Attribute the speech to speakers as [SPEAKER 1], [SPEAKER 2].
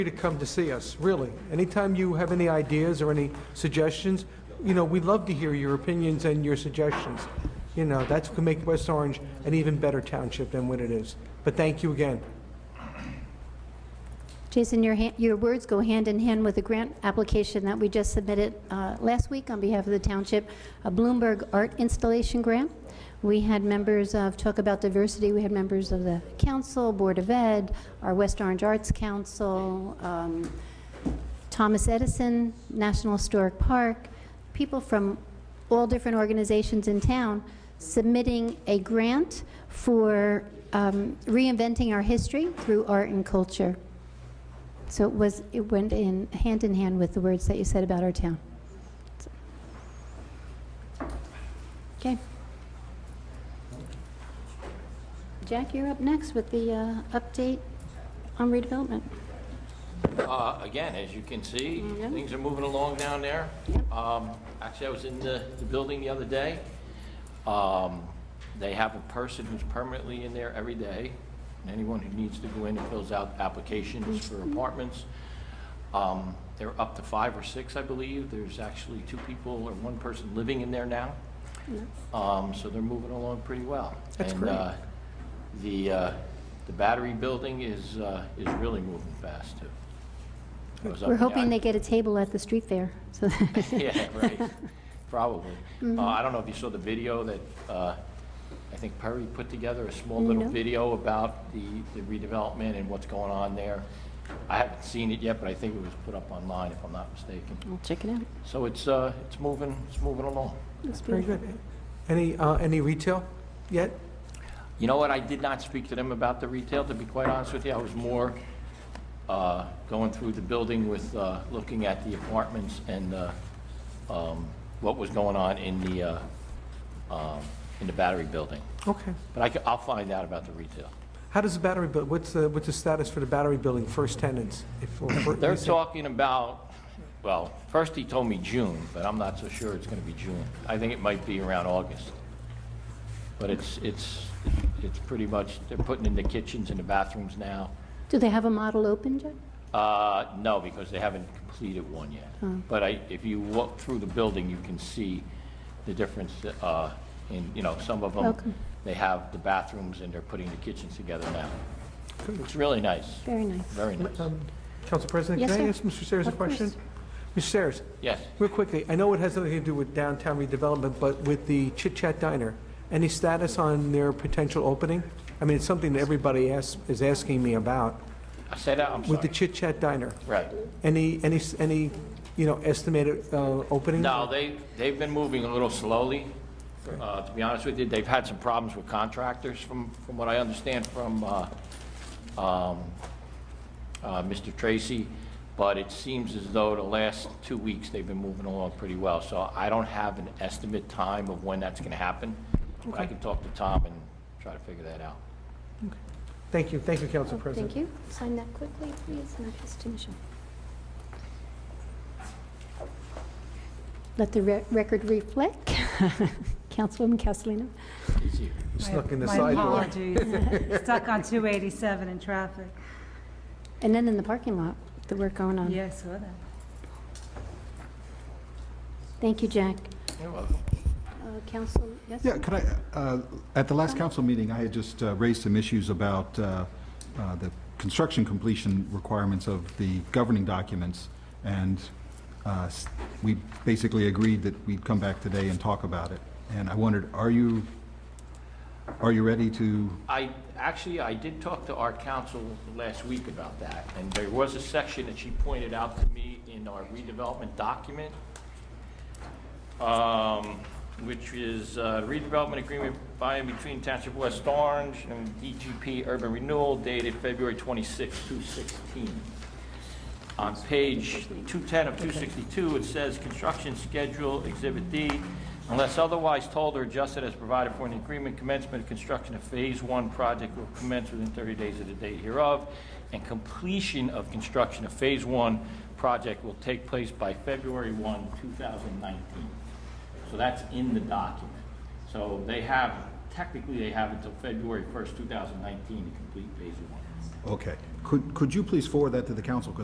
[SPEAKER 1] free to come to see us, really. Anytime you have any ideas or any suggestions, you know, we'd love to hear your opinions and your suggestions. You know, that's what can make West Orange an even better township than what it is. But thank you again.
[SPEAKER 2] Jason, your, han- your words go hand in hand with the grant application that we just submitted uh, last week on behalf of the township, a Bloomberg Art Installation Grant. We had members of, talk about diversity, we had members of the council, Board of Ed, our West Orange Arts Council, um, Thomas Edison, National Historic Park, people from all different organizations in town submitting a grant for um, reinventing our history through art and culture. So it was, it went in, hand in hand with the words that you said about our town. Okay. Jack, you're up next with the uh, update on redevelopment.
[SPEAKER 3] Uh, Again, as you can see,
[SPEAKER 2] Yeah.
[SPEAKER 1] Mm-hmm.
[SPEAKER 3] things are moving along down there.
[SPEAKER 2] Yep.
[SPEAKER 3] Um, Actually, I was in the the building the other day. Um, They have a person who's permanently in there every day, and anyone who needs to go in and fills out applications for
[SPEAKER 1] Mm-hmm.
[SPEAKER 3] apartments. Um, They're up to five or six, I believe. There's actually two people or one person living in there now. Um, So they're moving along pretty well.
[SPEAKER 1] That's
[SPEAKER 3] And,
[SPEAKER 1] great.
[SPEAKER 3] uh, The, uh, the battery building is, uh, is really moving fast, too. I was up
[SPEAKER 2] We're
[SPEAKER 3] in the-
[SPEAKER 2] hoping they get a table at the street fair. So
[SPEAKER 3] Yeah, right, probably.
[SPEAKER 2] Mm-hmm.
[SPEAKER 3] Uh, I don't know if you saw the video that, uh, I think Perry put together, a small little
[SPEAKER 2] No.
[SPEAKER 3] video about the the redevelopment and what's going on there. I haven't seen it yet, but I think it was put up online, if I'm not mistaken.
[SPEAKER 2] I'll check it out.
[SPEAKER 3] So it's, uh, it's moving, it's moving along.
[SPEAKER 2] That's
[SPEAKER 1] Very
[SPEAKER 2] beautiful.
[SPEAKER 1] good. Any, uh, any retail yet?
[SPEAKER 3] You know what, I did not speak to them about the retail, to be quite honest with you. I was more uh, going through the building with, uh, looking at the apartments and uh, um, what was going on in the, uh, um, in the battery building.
[SPEAKER 1] Okay.
[SPEAKER 3] But I ca- I'll find out about the retail.
[SPEAKER 1] How does the battery, bu- what's the, what's the status for the battery building, first tenants? if- or fir-
[SPEAKER 3] They're
[SPEAKER 1] leasing?
[SPEAKER 3] talking about, well, first he told me June, but I'm not so sure it's going to be June. I think it might be around August. But it's, it's, it's pretty much, they're putting in the kitchens and the bathrooms now.
[SPEAKER 2] Do they have a model open, Jack?
[SPEAKER 3] Uh, No, because they haven't completed one yet. But I, if you walk through the building, you can see the difference uh, in, you know, some of
[SPEAKER 2] Okay.
[SPEAKER 3] them, they have the bathrooms and they're putting the kitchens together now.
[SPEAKER 1] Good.
[SPEAKER 3] It's really nice,
[SPEAKER 2] Very nice.
[SPEAKER 3] very nice.
[SPEAKER 1] Um, Council President,
[SPEAKER 2] Yes,
[SPEAKER 1] can I
[SPEAKER 2] sir.
[SPEAKER 1] ask Mr. Sayers a
[SPEAKER 2] Of course.
[SPEAKER 1] question? Mr. Sayers?
[SPEAKER 3] Yes.
[SPEAKER 1] Real quickly, I know it has nothing to do with downtown redevelopment, but with the Chit Chat Diner, any status on their potential opening? I mean, it's something that everybody asks, is asking me about,
[SPEAKER 3] I said, that, I'm
[SPEAKER 1] with the
[SPEAKER 3] sorry.
[SPEAKER 1] Chit Chat Diner.
[SPEAKER 3] Right.
[SPEAKER 1] Any, any, any, you know, estimated uh, opening?
[SPEAKER 3] No, they, they've been moving a little slowly, uh, to be honest with you. They've had some problems with contractors, from, from what I understand from uh, um, uh, Mr. Tracy, but it seems as though the last two weeks, they've been moving along pretty well. So I don't have an estimate time of when that's going to happen. but I can talk to Tom and try to figure that out.
[SPEAKER 1] Thank you, thank you, Council President.
[SPEAKER 2] Thank you. Sign that quickly, please, not just initial. Let the re- record reflect. Councilwoman Castellino.
[SPEAKER 3] It's you.
[SPEAKER 1] Snuck in the
[SPEAKER 4] My
[SPEAKER 1] sidewalk.
[SPEAKER 4] apologies. Stuck on 287 in traffic.
[SPEAKER 2] And then in the parking lot, the work going on.
[SPEAKER 4] Yeah, I saw that.
[SPEAKER 2] Thank you, Jack.
[SPEAKER 3] You're welcome.
[SPEAKER 2] Uh, Council, yes?
[SPEAKER 5] Yeah, could I, uh, at the last council meeting, I had just uh, raised some issues about uh, uh, the construction completion requirements of the governing documents, and uh, s- we basically agreed that we'd come back today and talk about it. And I wondered, are you, are you ready to,
[SPEAKER 3] I, actually, I did talk to our council last week about that, and there was a section that she pointed out to me in our redevelopment document, um, which is uh, redevelopment agreement by and between Township of West Orange and DGP Urban Renewal dated February 26, 2016. On page 210 of 262, it says, "Construction schedule, Exhibit D, unless otherwise told or adjusted as provided for in the agreement, commencement of construction of Phase 1 project will commence within 30 days of the date hereof, and completion of construction of Phase 1 project will take place by February 1, 2019." So that's in the document. So they have, technically, they have until February 1st, 2019 to complete Phase 1.
[SPEAKER 5] okay, could, could you please forward that to the council? Because